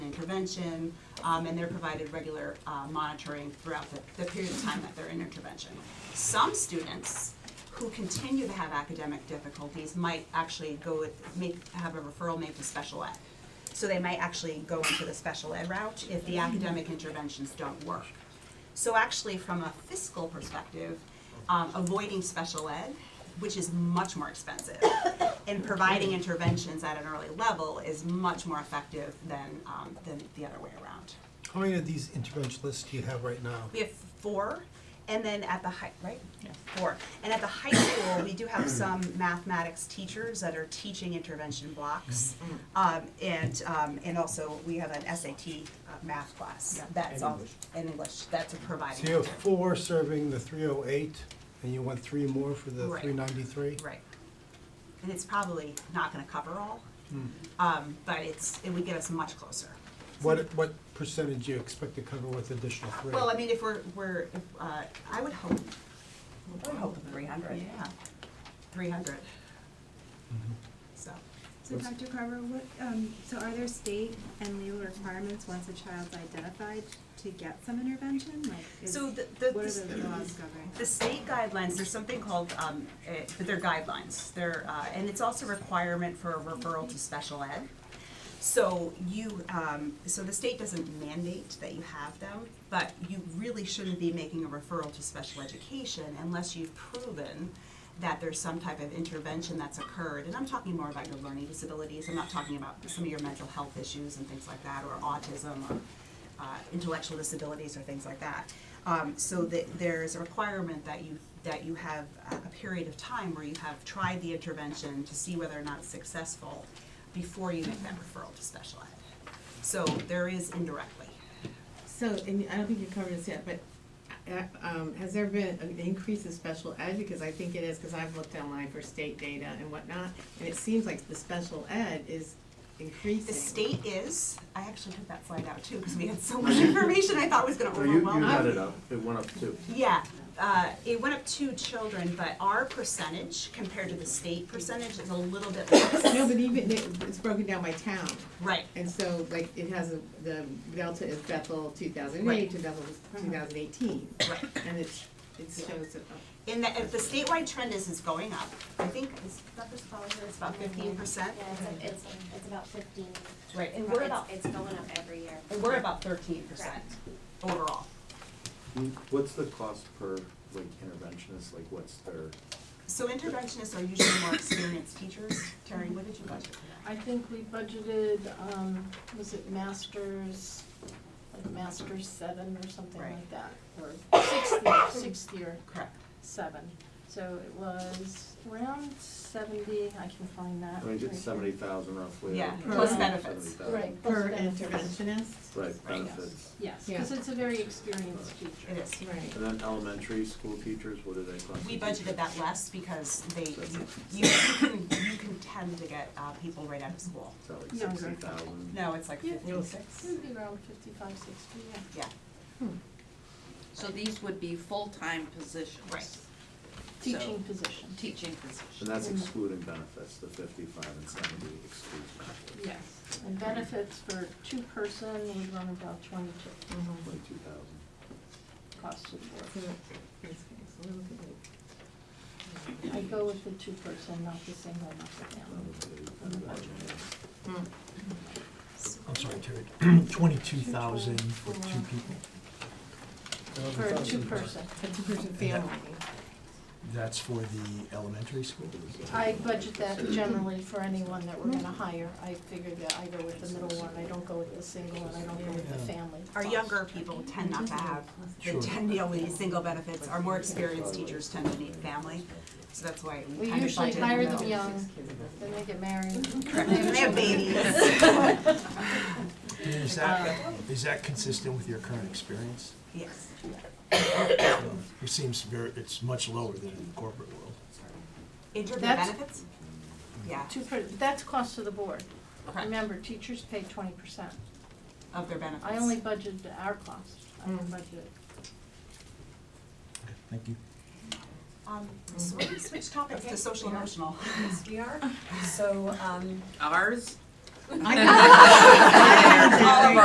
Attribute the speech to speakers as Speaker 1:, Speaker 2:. Speaker 1: intervention, um, and they're provided regular, uh, monitoring throughout the, the period of time that they're in intervention. Some students who continue to have academic difficulties might actually go with, make, have a referral made to special ed. So they might actually go into the special ed route if the academic interventions don't work. So actually, from a fiscal perspective, um, avoiding special ed, which is much more expensive, and providing interventions at an early level is much more effective than, um, than the other way around.
Speaker 2: How many of these intervention lists do you have right now?
Speaker 1: We have four, and then at the high, right? Yeah. Four. And at the high school, we do have some mathematics teachers that are teaching intervention blocks. Um, and, um, and also, we have an SAT uh, math class, that's all, in English, that's a
Speaker 2: So you
Speaker 1: providing.
Speaker 2: have four serving the three oh eight, and you want three more for the
Speaker 1: Right.
Speaker 2: three ninety-three?
Speaker 1: Right. And it's probably not gonna cover all,
Speaker 2: Hmm.
Speaker 1: um, but it's, it would get us much closer.
Speaker 2: What, what percentage do you expect to cover with additional three?
Speaker 1: Well, I mean, if we're, we're, if, uh, I would hope,
Speaker 3: We're hoping three hundred.
Speaker 1: yeah, three hundred, so.
Speaker 4: So Dr. Carver, what, um, so are there state and legal requirements once a child's identified to get some intervention? Like, is,
Speaker 1: So
Speaker 4: what
Speaker 1: the,
Speaker 4: are
Speaker 1: the.
Speaker 4: the laws
Speaker 1: the-
Speaker 4: governing?
Speaker 1: The state guidelines, there's something called, um, eh, but they're guidelines, they're, uh, and it's also a requirement for a referral to special ed. So you, um, so the state doesn't mandate that you have them, but you really shouldn't be making a referral to special education unless you've proven that there's some type of intervention that's occurred, and I'm talking more about your learning disabilities, I'm not talking about some of your mental health issues and things like that, or autism, or uh, intellectual disabilities or things like that. Um, so that there's a requirement that you, that you have a a period of time where you have tried the intervention to see whether or not it's successful before you make that referral to special ed. So there is indirectly.
Speaker 5: So, and I don't think you covered this yet, but uh, um, has there been an increase in special ed? Because I think it is, because I've looked online for state data and whatnot, and it seems like the special ed is increasing.
Speaker 1: The state is, I actually took that slide out too, because we had so much information I thought was gonna
Speaker 6: No, you,
Speaker 1: overwhelm.
Speaker 6: you
Speaker 1: us.
Speaker 6: had it up, it went up too.
Speaker 1: Yeah, uh, it went up two children, but our percentage compared to the state percentage is a little bit less.
Speaker 5: No, but even, it- it's broken down by town,
Speaker 1: Right,
Speaker 5: and so like it has, a- the Delta is Bethel two thousand
Speaker 1: Right. Uh-huh.
Speaker 5: eight, two thousand, two thousand eighteen.
Speaker 1: right.
Speaker 5: And it's, it shows it up.
Speaker 1: In the, if the statewide trend is, is going up, I think, is that the probably here, it's about fifteen percent?
Speaker 7: Yeah, it's, a- it's, a- it's about fifteen.
Speaker 1: Right, and
Speaker 7: It's-
Speaker 1: we're about,
Speaker 7: It's going up every year.
Speaker 1: and we're about thirteen percent overall.
Speaker 6: What's the cost per, like, interventionist, like, what's their,
Speaker 1: So interventionists are usually more experienced teachers. Terry, what did you budget for that?
Speaker 8: I think we budgeted, um, was it masters, like masters seven or something
Speaker 1: Right.
Speaker 8: like that? Or sixth year, sixth year,
Speaker 1: Correct.
Speaker 8: seven. So it was around seventy, I can find that.
Speaker 6: I mean,
Speaker 8: right
Speaker 6: it's seventy
Speaker 8: here.
Speaker 6: thousand roughly.
Speaker 1: Yeah,
Speaker 6: like,
Speaker 5: plus
Speaker 6: 60,
Speaker 1: benefits.
Speaker 6: 70,000.
Speaker 8: Right.
Speaker 5: Per
Speaker 8: Plus benefits.
Speaker 5: interventionist?
Speaker 6: Right, benefits.
Speaker 8: Yes,
Speaker 5: Yeah.
Speaker 8: because it's a very experienced teacher.
Speaker 1: It is.
Speaker 5: Right.
Speaker 6: And then elementary school teachers, what do they cost?
Speaker 1: We
Speaker 6: a
Speaker 1: budgeted
Speaker 6: teacher?
Speaker 1: that less because they, you, you can, you can tend to get, uh, people right out of school.
Speaker 6: Is that like
Speaker 8: Younger.
Speaker 6: sixty thousand?
Speaker 1: No, it's like
Speaker 8: Yeah.
Speaker 1: fifty-six.
Speaker 8: It would be around fifty-five, sixty, yeah.
Speaker 1: Yeah,
Speaker 3: So these would be full-time positions.
Speaker 1: Right.
Speaker 8: Teaching position,
Speaker 3: Teaching positions.
Speaker 6: And that's excluding benefits, the fifty-five and seventy excludes benefits,
Speaker 8: yes. And benefits for two-person would run about twenty-two,
Speaker 1: Uh-huh.
Speaker 6: twenty-two thousand.
Speaker 8: cost of the
Speaker 5: So,
Speaker 8: board.
Speaker 5: it's- it's a little bit like-
Speaker 8: I go with the two-person, not the single, not the family.
Speaker 9: I'm sorry, Terry, twenty-two thousand for two people,
Speaker 8: For a two-person.
Speaker 5: A two-person family.
Speaker 9: that's for the elementary school?
Speaker 8: I budget that generally for anyone that we're gonna hire. I figure that I go with the middle one, I don't go with the single, and I don't go with the family.
Speaker 1: our younger people tend not to have, they
Speaker 9: Sure.
Speaker 1: tend to deal with these single benefits. Our more experienced teachers tend to need family, so that's why we
Speaker 8: We
Speaker 1: kind of
Speaker 8: usually
Speaker 1: budget in
Speaker 8: hire
Speaker 1: the
Speaker 8: them
Speaker 1: middle.
Speaker 8: young, then they get married.
Speaker 1: They have babies.
Speaker 9: Is that, is that consistent with your current experience?
Speaker 1: Yes.
Speaker 2: Um,
Speaker 9: It seems very, it's much lower than in the corporate world.
Speaker 1: In terms of
Speaker 8: That's-
Speaker 1: benefits? Yeah,
Speaker 8: Two per, that's cost to the board.
Speaker 1: correct,
Speaker 8: Remember, teachers pay twenty percent.
Speaker 1: of their benefits.
Speaker 8: I only budget our cost, I
Speaker 1: Mm.
Speaker 8: don't budget.
Speaker 9: Thank you.
Speaker 1: Um, so we're gonna switch topics to social emotional.
Speaker 10: Yes, we are. So, um,
Speaker 3: Ours?
Speaker 5: I know.
Speaker 3: All of